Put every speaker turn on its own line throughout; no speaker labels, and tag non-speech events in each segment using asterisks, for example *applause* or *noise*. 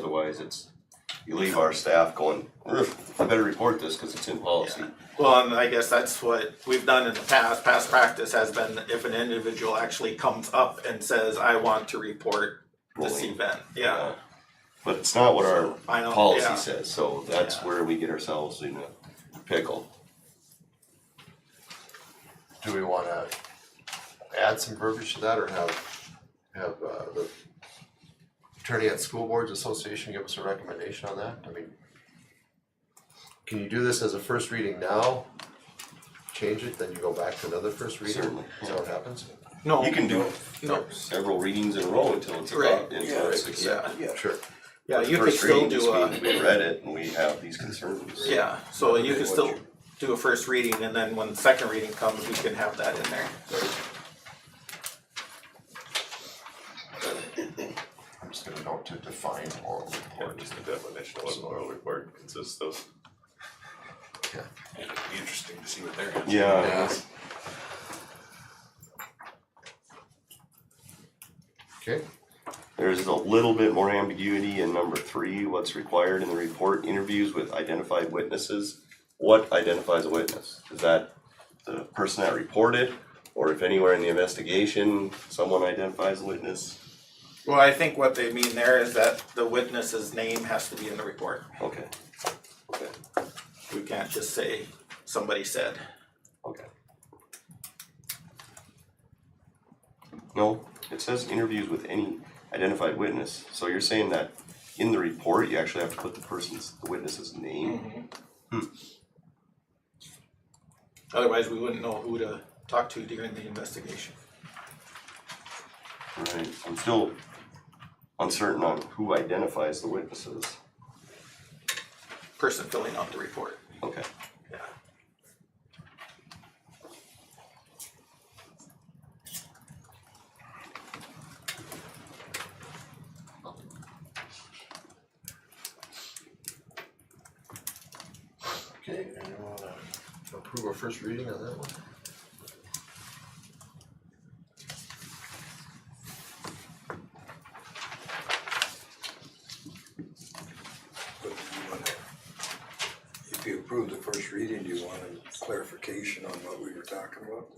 otherwise it's, you leave our staff going, "Ugh, I better report this because it's in policy.
Well, and I guess that's what we've done in the past, past practice has been if an individual actually comes up and says, I want to report this
Bullying.
event, yeah.
Uh, But it's not what our
I know, yeah.
policy says, so that's
Yeah.
where we get ourselves in a pickle.
Do we wanna add some verbiage to that or have, have uh the attorney at School Boards Association give us a recommendation on that? I mean, can you do this as a first reading now? Change it, then you go back to another first reading?
Certainly.
Is that what happens?
No,
You can do
no,
several readings in a row until it's
Right,
about, until it's
yeah,
accepted.
Sure.
yeah, you could
First
still
reading just
do
means
a,
we read it and we have these concerns.
yeah, so you could still do a first reading and then when the second reading comes, we can have that in there.
I'm just gonna note to define oral
Yeah,
report.
just the definition of what an oral report consists of.
Yeah.
It'd be interesting to see what they're gonna.
Yeah,
Okay,
there's a little bit more ambiguity in number three, what's required in the report, interviews with identified witnesses. What identifies a witness? Is that the person that reported? Or if anywhere in the investigation, someone identifies a witness?
Well, I think what they mean there is that the witness's name has to be in the report.
Okay. Okay,
We can't just say somebody said.
okay. No, it says interviews with any identified witness, so you're saying that in the report, you actually have to put the person's, the witness's name?
Otherwise, we wouldn't know who to talk to during the investigation.
Right, I'm still uncertain on who identifies the witnesses.
Person filling out the report,
Okay,
yeah.
okay, anyone wanna approve our first reading on that one?
But do you wanna- If you approve the first reading, do you want a clarification on what we were talking about?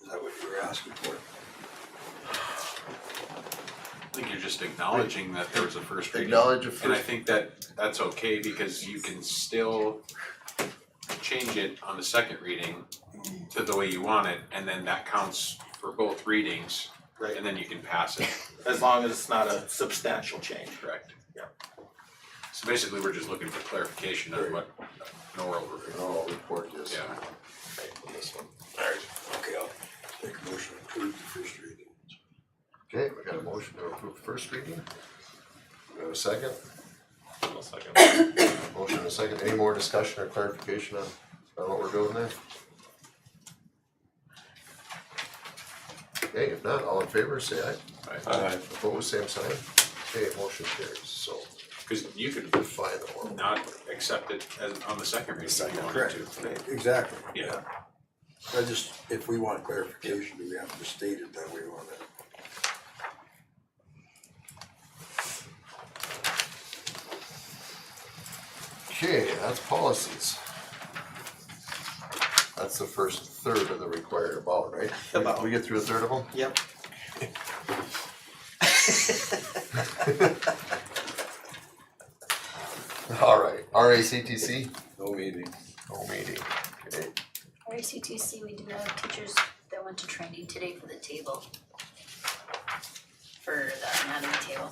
Is that what you were asking for?
I think you're just acknowledging that there was a first reading.
Acknowledge a
And I
first-
think that that's okay because you can still change it on the second reading to the way you want it, and then that counts for both readings,
Right,
and then you can pass it,
as long as it's not a substantial change.
correct?
Yeah.
So basically, we're just looking for clarification on what an oral report,
Oral report is.
yeah.
Okay, I'll make a motion to approve the first reading.
Okay, we got a motion to approve first reading. We have a second,
I'll second.
motion and a second, any more discussion or clarification on, on what we're doing there? Okay, if not, all in favor, say aye,
All right.
opposed, same sign, okay, motion carries, so,
Cause you could
fine, oral.
not accept it as, on the second reading if you wanted to.
Exactly.
Yeah,
I just, if we want clarification, do we have to state it that we want it?
Okay, that's policies. That's the first third of the required about, right?
About.
We get through a third of them? *laughs*
Yep.
Alright, RACTC,
No meeting.
no meeting, okay.
RCTC, we did have teachers that went to training today for the table. For the anatomy table.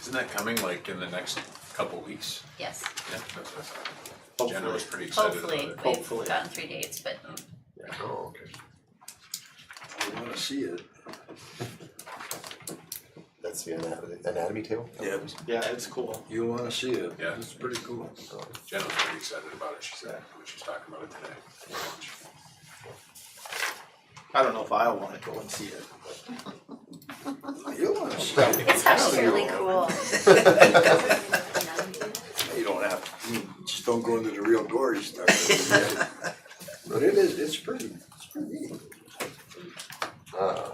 isn't that coming like in the next couple weeks?
Yes,
Yeah, that's what I thought. Jenna
Hopefully.
was pretty excited about
hopefully,
it.
we've
Hopefully.
gotten three dates, but
Oh, okay.
We wanna see it.
That's the anatomy, anatomy table?
Yeah.
Yeah, it's cool.
You wanna see it.
Yeah.
It's pretty cool.
Jenna was pretty excited about it, she said, when she was talking about it today.
I don't know if I wanna go and see it.
You wanna see it.
it's actually really cool. *laughs*
You don't have, to. you just don't go into the real gory stuff. *laughs* But it is, it's pretty, it's pretty neat.
Uh,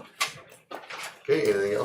Okay, Okay, anything else?